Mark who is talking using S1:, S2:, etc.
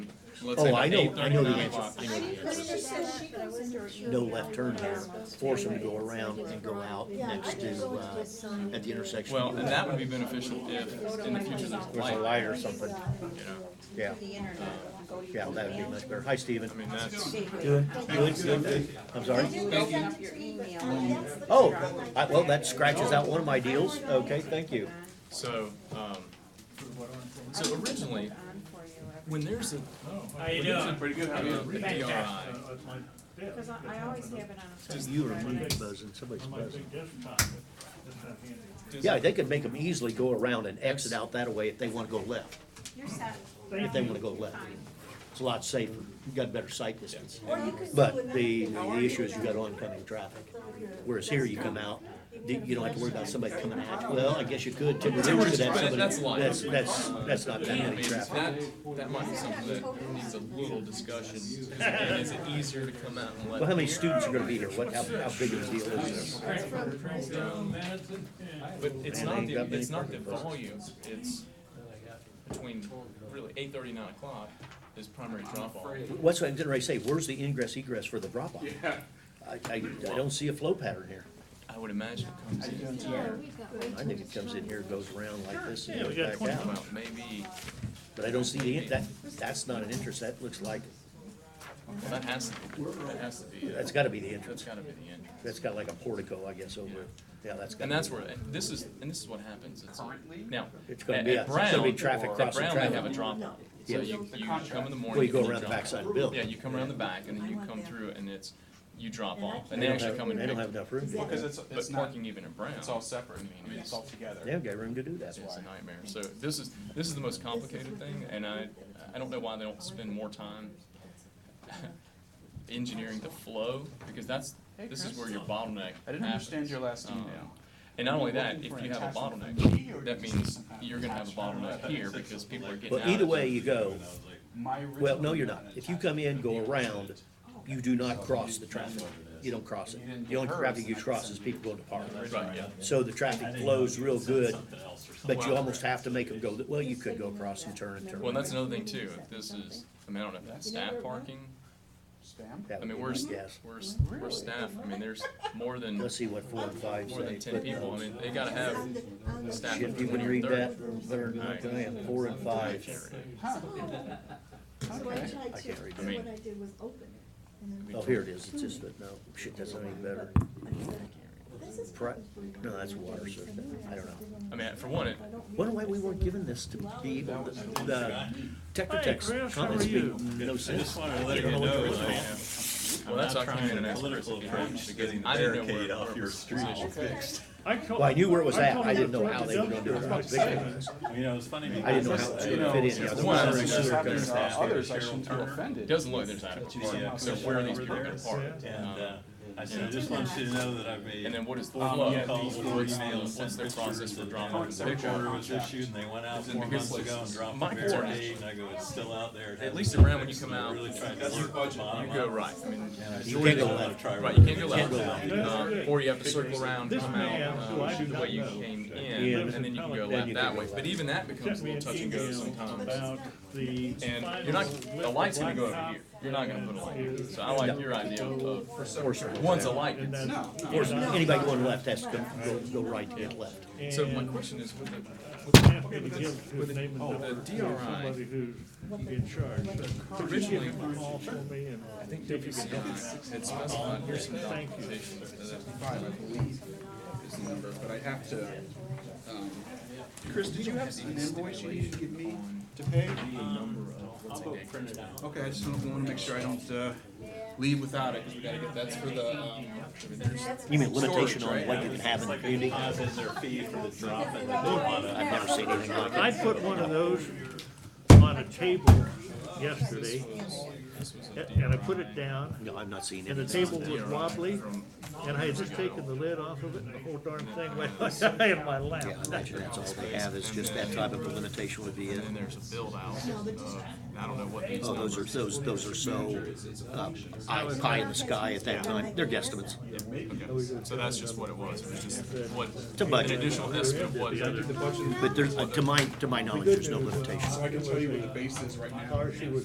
S1: Let's say
S2: Oh, I
S1: the
S2: know, I know the
S1: 839
S2: answer,
S1: lot.
S2: I know the answer.
S3: No
S2: No left turn there, force them to go around and go out next to, uh, at the intersection.
S1: Well, and that would be beneficial if in the future there's a
S2: There's a
S1: light.
S2: light or something, yeah, yeah, that would be much better. Hi, Stephen.
S1: I mean, that's,
S2: Good, good, good, good. I'm sorry.
S4: Oh.
S2: Oh, I, well, that scratches out one of my deals. Okay, thank you.
S1: so, um, so originally, when there's a, uh,
S5: How you
S1: when there's a
S5: doing?
S1: pretty good, how a DRI,
S3: Because I, I always have it on. a
S2: You removed buzzing, somebody's buzzing.
S1: does-
S2: Yeah, they could make them easily go around and exit out that way if they wanna go left,
S3: You're set.
S2: if they wanna go left. It's a lot safer. You got better sight distance.
S4: Or you could do
S2: But
S4: another
S2: the,
S4: thing.
S2: the issue is you got oncoming traffic. Whereas here, you come out, you you don't have to worry about somebody coming at you. Well, I guess you could, Timber Ridge could have
S1: But
S2: somebody,
S1: that's light.
S2: that's, that's, that's not that
S1: I
S2: many
S1: mean,
S2: traffic.
S1: that, that might be something that needs a little discussion. Is it- and Is it easier to come out and let?
S2: Well, how many students are gonna be here? What, how, how big of a deal is this?
S1: But it's not
S2: ain't
S1: the,
S2: got many
S1: it's not the
S2: parking places.
S1: volume, it's between really eight thirty, nine o'clock is primary drop off.
S2: What's, what I didn't already say, where's the ingress egress for the drop off? I, I, I don't see a flow pattern here.
S1: I would imagine it comes in,
S2: I think it comes in here, goes around like this and
S5: Yeah, we got
S2: goes back
S5: 20
S2: out.
S1: well, maybe,
S2: But I don't see the, that, that's not an entrance. That looks like,
S1: that has to, be- that has to be, uh,
S2: that's gotta be the
S1: that's
S2: entrance.
S1: gotta be the entrance.
S2: That's got like a portico, I guess, over, yeah, that's gotta
S1: And
S2: be.
S1: that's where, and this is, and this is what happens, it's, a- now,
S2: It's gonna
S1: at
S2: be, a-
S1: at
S2: it's gonna
S1: Brown,
S2: be
S1: at
S2: traffic
S1: Brown,
S2: crossing
S1: they have a
S2: traffic.
S1: drop off. So
S2: Yes.
S1: you, you come in the morning.
S2: Well, you go
S1: and
S2: around the
S1: drop
S2: backside of
S1: off.
S2: the building.
S1: Yeah, you come around the back and then you come through and it's, you drop off, and they
S2: don't
S1: actually
S2: have-
S1: come and
S2: They don't
S1: pick
S2: have enough room. to do
S6: Because
S2: that.
S6: it's, it's
S1: But
S6: not,
S1: parking even in Brown,
S6: it's all separate, I mean, it's all
S2: They
S6: together.
S2: haven't got room to do that.
S1: it's a nightmare. So this is, this is the most complicated thing, and I, I don't know why they don't spend more time engineering the flow, because that's, this is where your bottleneck
S6: I didn't understand your
S1: happens.
S6: last
S1: Um,
S6: email.
S1: And not only that,
S6: Looking
S1: if
S6: for
S1: you
S6: an
S1: have a
S6: attachment
S1: bottleneck, that
S6: is
S1: means
S6: somehow
S1: you're gonna have a
S6: attached.
S1: bottleneck here, because people are getting out.
S2: Well, either
S1: of the-
S2: way you go,
S6: My
S2: well,
S6: original
S2: no, you're
S6: email
S2: not.
S6: had
S2: If you
S6: attached-
S2: come in, go around, you do not cross the traffic. You don't cross it. The only traffic you cross is people going to park.
S1: Right, yeah.
S2: So the traffic flows real good, but you
S1: Wow.
S2: almost have to make them go, th- well, you could go across and turn and turn.
S1: Well, and that's another thing too, if this is, I mean, I don't know if that's staff parking,
S6: Spam?
S2: That
S1: I
S2: would
S1: mean,
S2: be
S1: we're,
S2: my
S1: s-
S2: guess.
S1: we're, s- we're staff, I mean, there's more than,
S2: Let's see what four and five say.
S1: more than ten
S2: but,
S1: people, I
S2: uh,
S1: mean, they gotta have the staff.
S2: Shit, you would read that, better than I can, I have four and five.
S6: Huh,
S4: So I
S6: okay.
S4: tried
S2: I
S4: to,
S2: can't read
S4: so
S1: that.
S4: what I did was open it. and then-
S2: Oh, here it is, it's just, that- no, shit, that's not any better.
S4: This is
S2: Pri-
S4: probably
S2: no, that's water, so, I don't know.
S1: I mean, for one, it,
S2: Wonder why we weren't given this to be able, to- the Tetra
S5: Hey,
S2: Tech's
S5: Chris, how
S2: comments
S5: are
S2: made
S5: you?
S2: no sense.
S7: wanted to let you know, that
S1: well, that's why I came in
S7: I'm
S1: and
S7: not
S1: asked.
S7: trying
S1: Chris
S7: political
S1: if he had-
S7: approach to getting the
S1: I didn't know
S7: barricade
S1: where-
S7: off
S1: where
S7: your
S1: was
S7: street
S1: positioned.
S2: Well, I knew where it was at, I didn't know how they were gonna do it, I was big
S7: I mean, it was funny.
S2: I didn't know how
S7: because,
S2: it
S7: you
S2: would
S7: know,
S2: fit in. Yeah, the
S7: one
S2: water
S7: of
S2: and
S7: the
S2: sewer
S7: southern
S2: comes
S6: Others,
S7: staff
S2: out.
S6: others I
S7: here,
S6: shouldn't feel
S7: Turner,
S1: It
S6: offended.
S1: doesn't look like there's adequate
S7: Yeah,
S1: parking, so
S7: because
S1: where are
S7: they
S1: these
S7: were
S1: people gonna
S7: there.
S1: park?
S7: And, uh, I said, I just want you to know that I've made.
S1: And then what is the
S7: phone
S1: flow?
S7: calls,
S1: What's
S7: four
S1: the-
S7: emails,
S1: what's
S7: sent
S1: the process
S7: pictures
S1: for
S7: of the
S1: drawing
S7: parents.
S1: the
S7: The
S1: picture?
S7: order was issued and they went out four
S1: because,
S7: months
S1: like,
S7: ago and dropped
S1: my
S7: the
S1: concern
S7: barricade
S1: is-
S7: and I go, it's still out there.
S1: At least around when you come out,
S7: Really tried to work the bottom
S1: You go
S7: up.
S1: right, I mean,
S7: And I
S2: You
S7: still
S2: can't go
S7: don't wanna
S2: left.
S7: try
S1: right, you can't go
S7: really-
S1: left, um, or you have to circle around,
S5: This
S1: come
S5: man,
S1: out,
S5: who I
S1: um,
S5: do
S1: the
S5: not
S1: way you
S5: know,
S1: came
S2: Yeah.
S1: in, and then you can go
S2: Then
S1: left
S2: you
S1: that
S2: can
S1: way,
S2: go
S1: but
S2: left.
S1: even that becomes a little touch and go sometimes.
S5: About the.
S1: And you're not, the light's gonna go over here, you're not gonna put a light here, so I like your idea of,
S2: Or-
S1: once a light,
S5: And
S1: it's-
S5: then-
S6: No, no.
S2: Or anybody going left has to go, go right to get left.
S1: so my
S5: and
S1: question is, with the,
S5: I'm happy to give his name and number
S1: the
S5: to
S1: DRI
S5: somebody who's in charge, but
S1: originally,
S5: I'm all for me and. I
S1: if
S5: think
S1: you had specified, here's some documentation,
S8: Five, I believe, is the number, but I'd have to, um, Chris, did you have an invoice you needed to give me to pay? Okay, I just don't wanna make sure I don't, uh, leave without it, 'cause we gotta get, that's for the, um,
S2: You mean limitation
S8: Storage, right?
S2: on what you can have in the community?
S7: Deposit their fee for the drop and they
S3: Oh,
S2: I've never seen anything like
S5: I
S2: that.
S5: put one of those on a table yesterday, a- and I put it down,
S2: No, I'm not seeing
S5: and the
S2: anything.
S5: table was wobbly, and I had just taken the lid off of it, and the whole darn thing went in my lap.
S2: Yeah, I imagine that's all they have, is just that type of a limitation would be it.
S1: and there's a build out, of I don't know what these
S2: Oh, those are, those, those are so, uh, eye- pie in the sky at that time, they're guesstimates.
S1: Okay, So that's just what it was, it was just what,
S2: a
S1: an
S2: budget.
S1: additional estimate of what,
S2: But there's, uh, to my, to my knowledge, there's no limitation.
S8: so I can tell you what the base is right now.
S5: Car she was